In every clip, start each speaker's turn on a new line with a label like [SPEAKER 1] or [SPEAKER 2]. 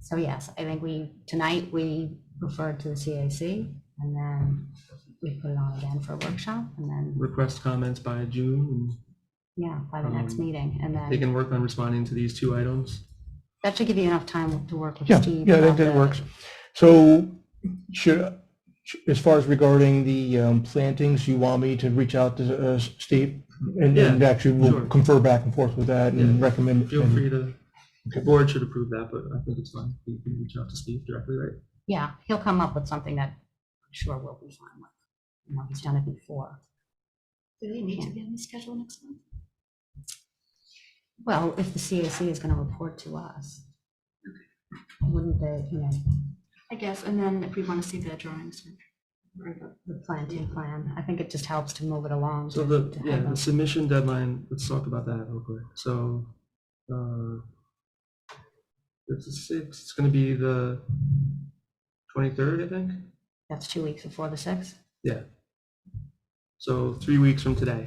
[SPEAKER 1] So yes, I think we, tonight, we referred to the CAC and then we put it on again for a workshop and then,
[SPEAKER 2] request comments by June.
[SPEAKER 1] yeah, by the next
[SPEAKER 2] Um,
[SPEAKER 1] meeting. And
[SPEAKER 2] They
[SPEAKER 1] then
[SPEAKER 2] can work on responding to these two items.
[SPEAKER 1] that should give you enough time to work with
[SPEAKER 3] Yeah,
[SPEAKER 1] Steve.
[SPEAKER 3] yeah, that,
[SPEAKER 1] about
[SPEAKER 3] that
[SPEAKER 1] the-
[SPEAKER 3] works. So should, as far as regarding the um, plantings, you want me to reach out to uh, Steve? And and
[SPEAKER 2] Yeah,
[SPEAKER 3] actually we'll
[SPEAKER 2] sure.
[SPEAKER 3] confer back and forth with that and
[SPEAKER 2] Yeah.
[SPEAKER 3] recommend.
[SPEAKER 2] Feel
[SPEAKER 3] and-
[SPEAKER 2] free to, the
[SPEAKER 3] Okay.
[SPEAKER 2] board should approve that, but I think it's fine. You can reach out to Steve directly, right?
[SPEAKER 1] Yeah, he'll come up with something that I'm sure will be fine with. You know, he's done it before. Do they need to be on the schedule next month? Well, if the CAC is going to report to us, wouldn't they, you know? I guess, and then if we want to see the drawings. The planting plan, I think it just helps to move it along.
[SPEAKER 2] So
[SPEAKER 1] to-
[SPEAKER 2] the,
[SPEAKER 1] to
[SPEAKER 2] yeah,
[SPEAKER 1] have
[SPEAKER 2] the
[SPEAKER 1] a-
[SPEAKER 2] submission deadline, let's talk about that real quick. So, uh, it's the sixth, it's gonna be the twenty-third, I think?
[SPEAKER 1] That's two weeks before the sixth.
[SPEAKER 2] Yeah. So three weeks from today,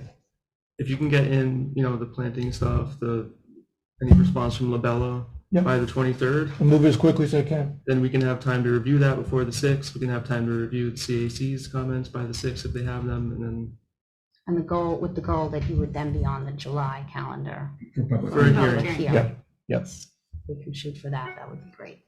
[SPEAKER 2] if you can get in, you know, the planting stuff, the, any response from Labella
[SPEAKER 3] Yeah.
[SPEAKER 2] by the twenty-third,
[SPEAKER 3] and Move as quickly as I can.
[SPEAKER 2] then we can have time to review that before the sixth. We can have time to review the CAC's comments by the sixth if they have them, and then
[SPEAKER 1] And the goal, with the goal that you would then be on the July calendar.
[SPEAKER 2] for a
[SPEAKER 1] public
[SPEAKER 2] hearing.
[SPEAKER 1] hearing.
[SPEAKER 3] Yeah, yeah.
[SPEAKER 1] We can shoot for that, that would be great.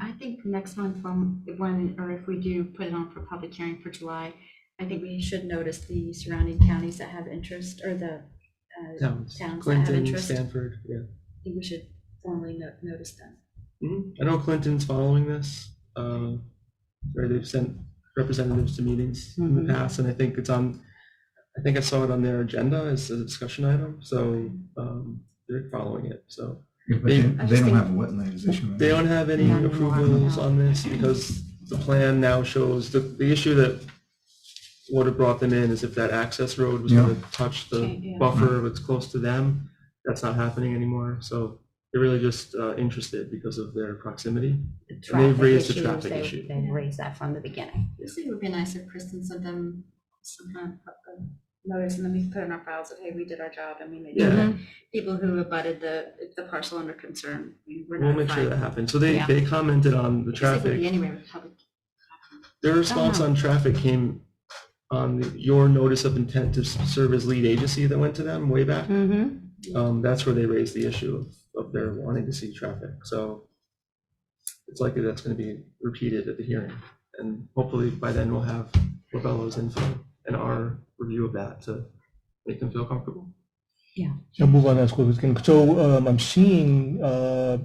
[SPEAKER 4] I think the next month, um, when, or if we do put it on for public hearing for July, I think we should notice the surrounding counties that have interest, or the uh,
[SPEAKER 2] Towns,
[SPEAKER 4] towns that have
[SPEAKER 2] Clinton,
[SPEAKER 4] interest. I
[SPEAKER 2] Stanford, yeah.
[SPEAKER 4] think we should formally no- notice them.
[SPEAKER 2] Mhm. I know Clinton's following this, uh, where they've sent representatives to meetings in
[SPEAKER 1] Mhm.
[SPEAKER 4] Mm-hmm.
[SPEAKER 2] the past, and I think it's on, I think I saw it on their agenda as a discussion item, so um, they're following it, so.
[SPEAKER 5] Yeah, but
[SPEAKER 2] They-
[SPEAKER 5] they,
[SPEAKER 4] I
[SPEAKER 5] they
[SPEAKER 4] just
[SPEAKER 5] don't
[SPEAKER 4] think-
[SPEAKER 5] have a wetlands issue.
[SPEAKER 2] They don't have any
[SPEAKER 1] Not anymore,
[SPEAKER 2] approvals
[SPEAKER 1] no.
[SPEAKER 2] on this because the plan now shows, the, the issue that would have brought them in is if that access road was gonna touch
[SPEAKER 4] Okay,
[SPEAKER 2] the
[SPEAKER 4] yeah.
[SPEAKER 2] buffer that's close to them, that's not happening anymore, so they're really just uh, interested because of their proximity.
[SPEAKER 1] the
[SPEAKER 2] they've
[SPEAKER 1] traffic
[SPEAKER 2] raised the
[SPEAKER 1] issues,
[SPEAKER 2] traffic
[SPEAKER 1] they-
[SPEAKER 2] issue.
[SPEAKER 1] They've raised that from the beginning.
[SPEAKER 4] I think it would be nice if Kristen sent them some kind of uh, notice, and then we could put in our files that, hey, we did our job, and we made sure
[SPEAKER 2] Yeah.
[SPEAKER 4] that people who abutted the, the parcel under concern, we were
[SPEAKER 2] We'll make sure that
[SPEAKER 4] notified.
[SPEAKER 2] happens. So they,
[SPEAKER 1] Yeah.
[SPEAKER 2] they commented on the
[SPEAKER 4] Just like would be
[SPEAKER 2] traffic.
[SPEAKER 4] anywhere with public.
[SPEAKER 2] Their response
[SPEAKER 1] know.
[SPEAKER 2] on traffic came on the- your notice of intent to serve as lead agency that went to them way back.
[SPEAKER 1] Mm-hmm.
[SPEAKER 2] Um, that's where they raised the issue of, of their wanting to see traffic. So it's likely that's going to be repeated at the hearing. And hopefully by then we'll have Labello's info and our review of that to make them feel comfortable.
[SPEAKER 3] So move on as quickly as I can. So um, I'm seeing uh,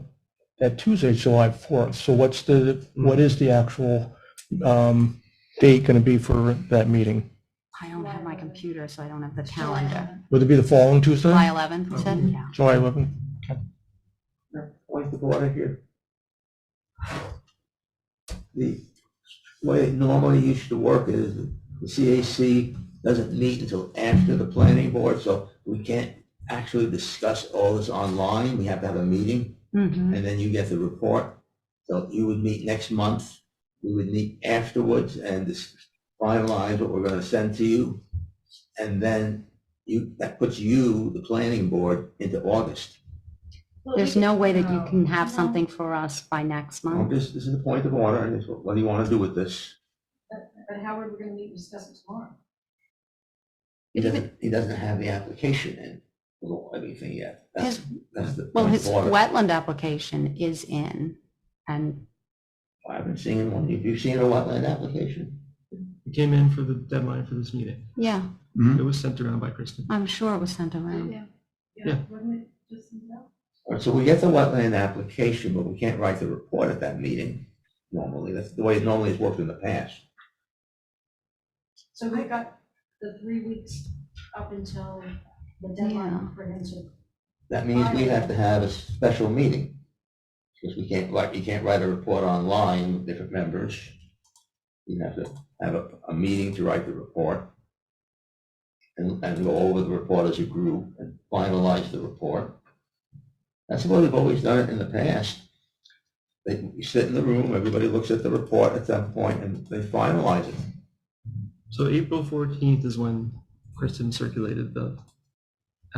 [SPEAKER 3] that Tuesday, July 4th. So what's the, what is the actual um, date going to be for that meeting?
[SPEAKER 1] I don't have my computer, so I don't have the calendar.
[SPEAKER 3] Would it be the following Tuesday?
[SPEAKER 1] July 11th, you said? Yeah.
[SPEAKER 3] July 11th?
[SPEAKER 6] Where's the water here? The way it normally used to work is the CAC doesn't meet until after the planning board, so we can't actually discuss all this online. We have to have a meeting
[SPEAKER 4] Mm-hmm.
[SPEAKER 1] Mhm.
[SPEAKER 6] and then you get the report. So you would meet next month. We would meet afterwards and dis- finalize what we're gonna send to you. And then you, that puts you, the planning board, into August.
[SPEAKER 1] There's no way that you can have something for us by next month.
[SPEAKER 6] August, this is the point of order. and it's what what do you wanna do with this?
[SPEAKER 4] But Howard, we're gonna need to discuss it tomorrow.
[SPEAKER 6] He doesn't, he doesn't have the application in, or anything yet. That's- that's the
[SPEAKER 1] Well,
[SPEAKER 6] point
[SPEAKER 1] his
[SPEAKER 6] of order.
[SPEAKER 1] wetland application is in and
[SPEAKER 6] I haven't seen one. Have you seen a wetland application?
[SPEAKER 2] It came in for the deadline for this meeting.
[SPEAKER 1] yeah,
[SPEAKER 2] It was sent around by Kristen.
[SPEAKER 1] I'm sure it was sent around.
[SPEAKER 2] Yeah.
[SPEAKER 6] All right, so we get the wetland application, but we can't write the report at that meeting normally. That's the way it normally has worked in the past.
[SPEAKER 7] So we got the three weeks up until the deadline for him to.
[SPEAKER 6] That means we have to have a special meeting. Because we can't write, you can't write a report online with different members. You have to have a, a meeting to write the report. And, and go over the report as a group and finalize the report. That's what we've always done it in the past. They, you sit in the room, everybody looks at the report at that point and they finalize it.
[SPEAKER 2] So April 14th is when Kristen circulated the